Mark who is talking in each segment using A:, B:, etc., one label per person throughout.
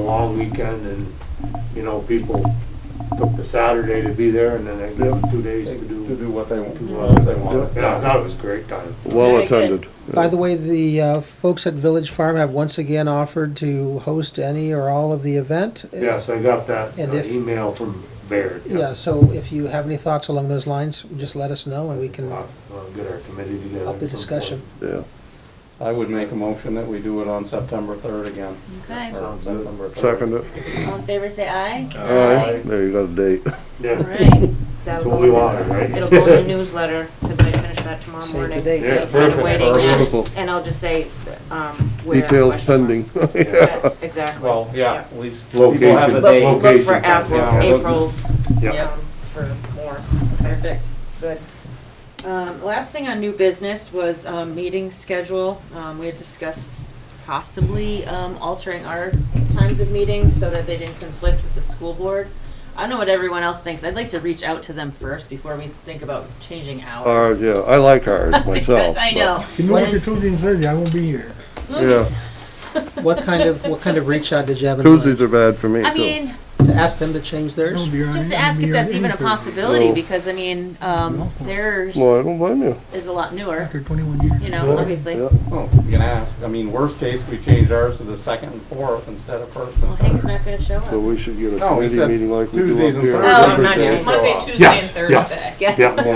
A: long weekend and, you know, people took the Saturday to be there and then they gave them two days to
B: To
A: do.
B: do what they
A: do
B: want,
A: what
B: they want.
A: Yeah, I thought it was a great time.
C: Well
D: Very
C: attended.
E: By the way, the uh, folks at Village Farm have once again offered to host any or all of the event.
A: Yes, I got that
E: And
A: uh,
E: if-
A: email from Baird.
E: Yeah, so if you have any thoughts along those lines, just let us know and we can
A: I'll I'll Uh, get our committee together.
E: up the discussion.
C: Yeah.
B: I would make a motion that we do it on September third again.
D: Okay,
B: or on September 3rd.
C: Second it.
D: all in favor, say aye.
C: Aye. There you got a date.
D: All
A: Yeah,
D: right,
A: that's
F: That'll
A: what we
F: go,
A: wanted, right?
F: it'll go in the newsletter, because I finish that tomorrow
E: Save the
F: morning.
E: date.
A: Yeah,
F: It's kind of
A: perfect.
F: waiting yet.
C: Beautiful.
F: And I'll just say, um, where.
C: Details
F: question mark.
C: pending.
F: Yes, exactly.
B: Well, yeah, at least people have
A: Location.
B: a
F: Look-
B: date.
F: Look for
A: Location.
B: Yeah.
F: April, April's,
A: Yeah.
F: um, for more.
D: perfect.
F: Good.
D: Um, last thing on new business was, um, meeting schedule. Um, we had discussed possibly, um, altering our times of meetings so that they didn't conflict with the school board. I don't know what everyone else thinks. I'd like to reach out to them first before we think about changing
C: Ours,
D: hours.
C: Uh, yeah, I like ours myself.
D: Because I
C: but-
D: know.
G: You know what, the Tuesday and Thursday, I won't be here.
C: Yeah,
E: What kind of, what kind of reach out did you have in mind?
C: Tuesdays are bad for me
D: I
C: too.
D: mean,
E: To ask them to change
G: I
E: theirs?
G: won't be here on
D: just to
G: any-
D: ask
G: be
D: if
G: here on
D: that's
G: any
D: even a
G: Thursday.
D: possibility,
C: No.
D: because I mean, um, theirs
C: Well, I don't blame you.
D: is a lot newer,
G: After twenty-one years.
D: you know, obviously.
C: Yeah.
B: Oh, You can ask. I mean, worst case, we change ours to the second and fourth instead of first
D: Well,
B: and
D: Hank's
B: third.
D: not gonna show
C: So
D: up.
C: we should get a
B: No, we
C: committee
B: said
C: meeting like we do
B: Tuesdays
C: up
B: and
C: here.
B: Thursdays.
D: Oh,
B: not
C: every
B: yet.
C: day.
B: Monday,
H: Monday, Tuesday,
B: Tuesday,
A: and
H: and
A: yeah.
H: Thursday.
D: Yeah.
C: Yeah,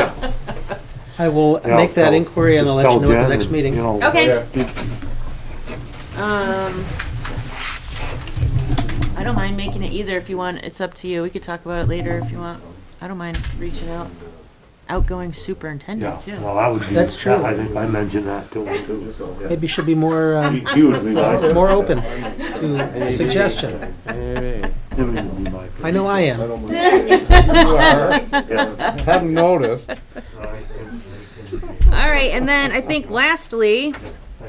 C: yeah.
E: I will
A: Yeah,
E: make that
A: tell-
E: inquiry and I'll let
A: tell
E: you know at
A: Jen
E: the next
A: and,
E: meeting.
A: you know,
D: Okay,
B: Yeah.
D: um, I don't mind making it either if you want. It's up to you. We could talk about it later if you want. I don't mind reaching out. Outgoing
A: Yeah,
D: superintendent too.
A: well, that would be.
E: That's true.
A: I think I mentioned that to him too, so. yeah.
E: Maybe should be more,
A: He-
E: um,
A: He would be my.
E: more open to suggestion.
A: Jimmy would be my.
E: I know I am.
A: Yeah.
B: Hadn't noticed.
D: All right, and then I think lastly,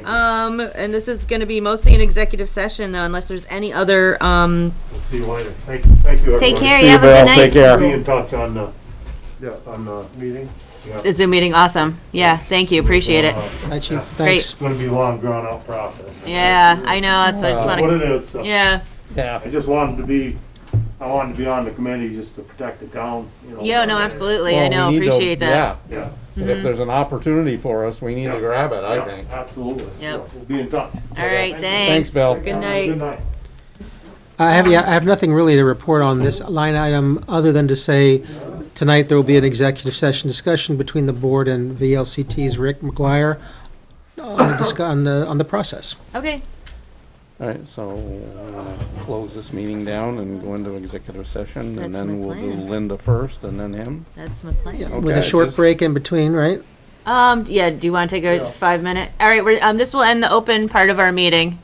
D: um, and this is gonna be mostly an executive session though, unless there's any other, um,
A: We'll See you later. Thank, thank you, everybody.
D: take care,
C: See
D: you
C: you,
D: have a
C: Val.
D: good
C: Take
D: night.
C: care.
A: Be in touch on the,
C: Yeah.
A: on the meeting. Uh,
D: The Zoom meeting, awesome. Yeah, thank you, appreciate it.
E: Hi, Chief,
D: Great.
E: thanks.
A: It's gonna be a long drawn out process.
D: Yeah, I know, so I just
A: What
D: wanna,
A: it is, so.
D: yeah.
B: Yeah.
A: I just wanted to be, I wanted to be on the committee just to protect the town, you know.
D: Yeah, no, absolutely, I know,
B: Well, we need to-
D: appreciate that. Mm-hmm.
A: Yeah,
B: Yeah, if there's an opportunity for us, we need to grab it, I
A: yeah,
B: think.
A: absolutely.
D: Yep.
A: So, We'll be in touch.
D: All right,
B: Thanks,
D: thanks.
B: Bill.
D: Good
A: Good
D: night.
A: night.
E: I have, yeah, I have nothing really to report on this line item, other than to say, tonight there will be an executive session discussion between the board and VLCT's Rick McGuire on the, discu- on the, on the process.
D: Okay,
B: All right, so I'm gonna close this meeting down and go into executive session, and
D: That's
B: then
D: my
B: we'll do
D: plan.
B: Linda first, and then him.
D: that's my plan.
E: With a
B: Okay,
E: short
B: just-
E: break in between, right?
D: Um, yeah, do you wanna take a five minute? All right, we're, um, this will end the open part of our meeting.